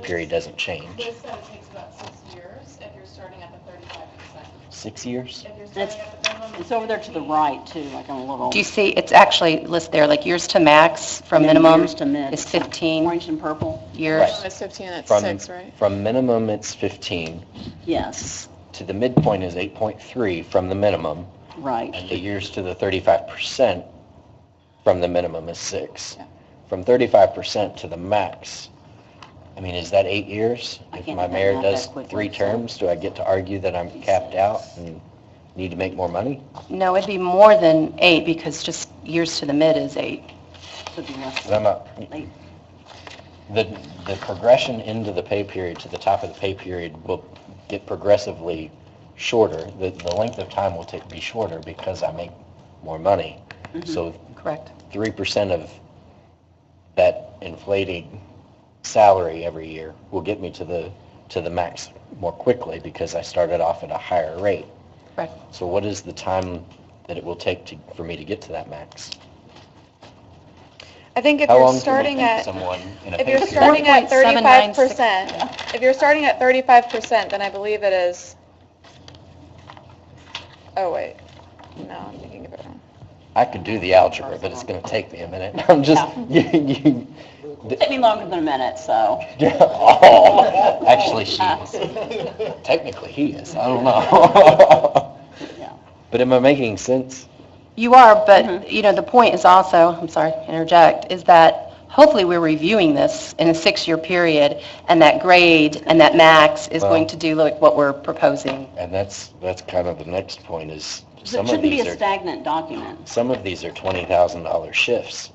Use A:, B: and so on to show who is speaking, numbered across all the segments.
A: period doesn't change.
B: This said it takes about six years if you're starting at the thirty-five percent.
A: Six years?
B: If you're
C: That's-
B: starting at the minimum.
C: It's over there to the right too, like on a little.
D: Do you see, it's actually listed there, like years to max from
C: And then
D: minimum
C: years to min.
D: is 15
C: Orange and purple,
D: years.
A: Right.
B: It's fifteen, it's
A: From-
B: six, right?
A: From minimum, it's 15,
C: yes,
A: to the midpoint is 8.3 from the minimum,
C: right.
A: and the years to the 35% from the minimum is six. From 35% to the max, I mean, is that eight years?
C: I
A: If
C: can't
A: my
C: do that
A: mayor
C: math
A: does
C: that quickly,
A: three
C: so-
A: terms, do I get to argue that I'm capped out and need to make more money?
D: No, it'd be more than eight because just years to the mid is eight.
C: Should be less.
A: 'Cause I'm not,
C: Eight.
A: The, the progression into the pay period, to the top of the pay period, will get progressively shorter. The, the length of time will take, be shorter because I make more money. So
D: Correct.
A: 3% of that inflated salary every year will get me to the, to the max more quickly because I started off at a higher rate.
D: Correct.
A: So what is the time that it will take to, for me to get to that max?
E: I think if
A: How long can I
E: you're starting
A: keep
E: at,
A: Someone in a
E: if
A: pay
E: you're
A: period?
E: starting at 35
D: 4.796.
E: percent, if you're starting at 35 percent, then I believe it is, oh, wait, no, I'm thinking of it wrong.
A: I could do the algebra, but it's going to take me a minute. I'm just, you, you,
C: Took me longer than a minute, so. uh,
A: oh, actually, she is. Technically, he is. I don't know.
C: Yeah.
A: But am I making sense?
D: You are, but, you know, the point is also, I'm sorry, to interject, is that hopefully we're reviewing this in a six-year period, and that grade and that max is
A: Well-
D: going to do like what we're proposing.
A: And that's, that's kind of the next point is
C: So It
A: some of
C: shouldn't be
A: these
C: a
A: are,
C: stagnant document.
A: some of these are $20,000 shifts.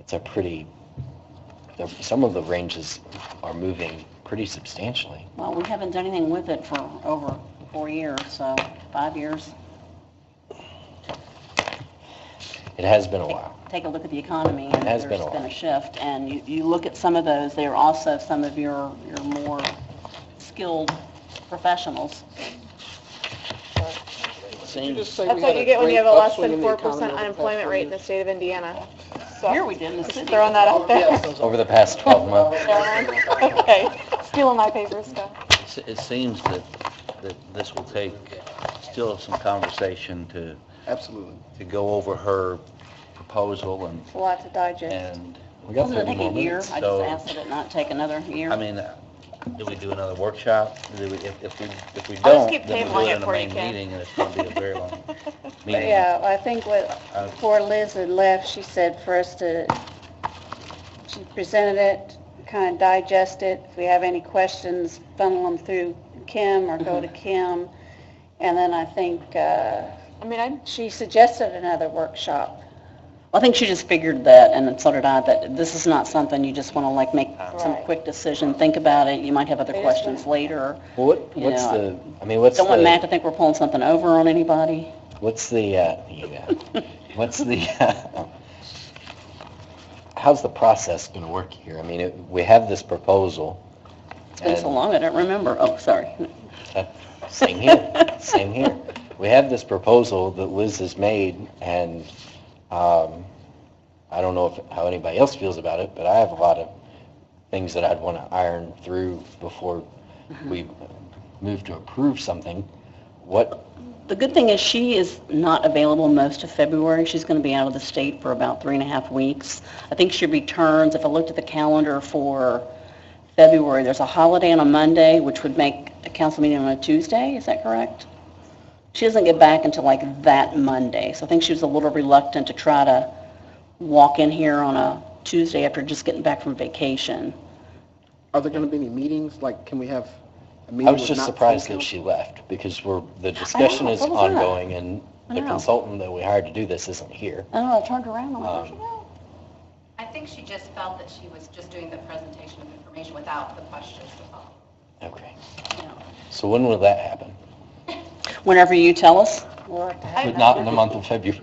A: It's a pretty, the- some of the ranges are moving pretty substantially.
C: Well, we haven't done anything with it for over four years, so five years.
A: It has been a while.
C: Take a look at the economy. and
A: Has been a
C: There's been
A: lot.
C: a shift, and you, you look at some of those, they are also some of your, your more skilled professionals.
E: That's what you get when you have a less than 4 percent unemployment rate in the state of Indiana.
C: Here
E: So,
C: we did in the city.
E: just throwing that out there.
A: Over the past 12 months.
E: Okay, stealing my paper stuff.
F: S- It seems that, that this will take still some conversation to,
G: Absolutely.
F: to go over her proposal and,
E: It's a lot to digest.
F: and,
A: We got
C: Doesn't it
A: 30
C: take
A: more
C: a year?
A: minutes.
C: I just
F: so-
C: asked that it not take another year.
F: I mean, uh, do we do another workshop? Do we, if, if we, if we
E: I'll just
F: don't,
E: keep
F: then
E: tabling
F: we'll do
E: it
F: it in a
E: for you,
F: main
E: Ken.
F: meeting, and it's gonna be a very long
H: But
F: meeting.
H: yeah, I think what,
F: Uh,
H: before Liz had left, she said for us to, she presented it, kind of digest it. If we have any questions, funnel them through Kim or go to
C: Mm-hmm.
H: Kim. And then I think, uh,
E: I mean, I,
H: she suggested another workshop.
C: I think she just figured that, and so did I, that this is not something you just want to like make some
H: Right.
C: quick decision, think about it, you might have other
H: It is
C: questions later.
A: Well, What,
C: You
A: what's the,
C: know,
A: I mean, what's the?
C: Don't want Matt to think we're pulling something over on anybody.
A: What's the, uh, you know, what's the, uh, how's the process going to work here? I mean, it- we have this proposal.
C: It's been so long, I don't remember. Oh, sorry.
A: Same here, same here. We have this proposal that Liz has made, and um, I don't know if- how anybody else feels about it, but I have a lot of things that I'd want to iron through before we move to approve something. What,
C: The good thing is she is not available most of February. She's going to be out of the state for about three and a half weeks. I think she returns, if I looked at the calendar for February, there's a holiday on a Monday, which would make a council meeting on a Tuesday, is that correct? She doesn't get back until like that Monday, so I think she was a little reluctant to try to walk in here on a Tuesday after just getting back from vacation.
G: Are there going to be any meetings? Like, can we have a meeting?
A: I was
G: with
A: just
G: not full
A: surprised that
G: council?
A: she left because we're, the discussion is
C: so was I.
A: ongoing and the
C: know.
A: consultant that we hired to do this isn't here.
C: I don't know, I turned around, I'm like, where'd she
A: Um,
C: go?
I: I think she just felt that she was just doing the presentation of information without the questions to follow.
A: Okay. So when will that happen?
C: Whenever you tell us.
H: We'll have to have
A: But not in the month of February.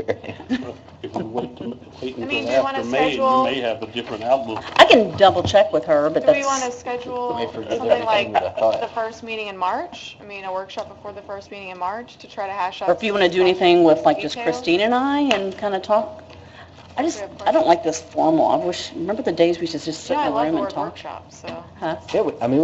J: If we wait to- wait
E: I mean,
J: until
E: do you wanna
J: after May,
E: schedule-
J: we may have a different outlook.
C: I can double check with her, but
E: do
C: that's...
E: we want to
A: I
E: schedule
A: forget
E: something like
A: everything that I thought.
E: the first meeting in March? I mean, a workshop before the first meeting in March to try to hash out.
C: Or if you
E: some
C: want to do
E: discussion
C: anything with like just
E: details?
C: Christine and I and kind of talk, I just, I don't like this formal. I wish, remember the days we used to just sit
E: Yeah, I
C: in a
E: love
C: room
E: the
C: and
E: word
C: talk?
E: workshop, so.
C: Huh?
A: Yeah, we- I mean,